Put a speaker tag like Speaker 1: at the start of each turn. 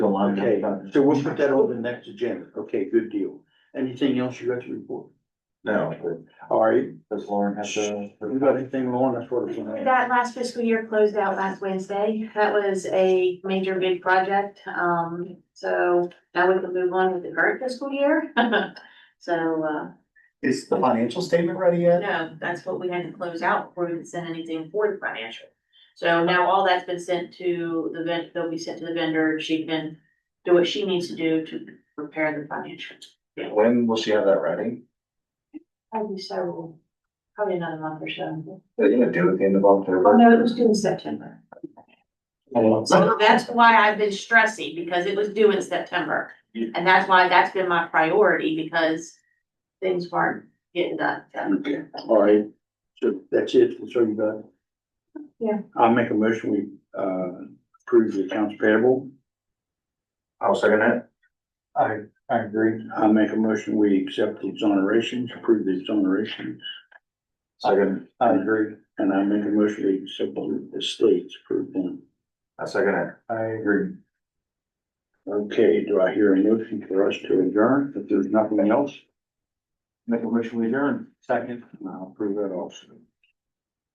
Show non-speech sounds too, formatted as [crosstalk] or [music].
Speaker 1: lot of that
Speaker 2: Okay,
Speaker 1: stuff.
Speaker 2: so we'll put that on the next agenda. Okay, good deal. Anything else you got to report?
Speaker 1: No,
Speaker 2: All right,
Speaker 1: does Lauren have to?
Speaker 2: you got anything, Lauren, that's what it's on.
Speaker 3: That last fiscal year closed out last Wednesday. That was a major big project. Um, so now we can move on with the current fiscal year. [laughs] So, uh,
Speaker 4: Is the financial statement ready yet?
Speaker 3: no, that's what we had to close out before we could send anything for the financial. So now all that's been sent to the vendor, they'll be sent to the vendor. She can do what she needs to do to prepare the financial.
Speaker 4: When will she have that ready?
Speaker 3: Probably so, probably another month or so.
Speaker 4: Are you gonna do it at the end of
Speaker 3: Well,
Speaker 4: October?
Speaker 3: no, it was due in September.
Speaker 4: Oh,
Speaker 3: So that's why I've been stressing, because it was due in September. And that's why that's been my priority, because things weren't getting done.
Speaker 2: Okay, all right. So that's it. That's all you got?
Speaker 3: Yeah.
Speaker 2: I'll make a motion. We, uh, approve the accounts payable.
Speaker 4: I'll second that.
Speaker 1: I, I agree.
Speaker 2: I make a motion. We accept the exonerations, approve the exonerations.
Speaker 4: Second,
Speaker 2: I agree. And I make a motion. We accept the states, approve them.
Speaker 4: I second it.
Speaker 1: I agree.
Speaker 2: Okay, do I hear a motion for us to adjourn? If there's nothing else,
Speaker 4: Make a motion, we adjourn.
Speaker 1: Second.
Speaker 2: I'll approve that also.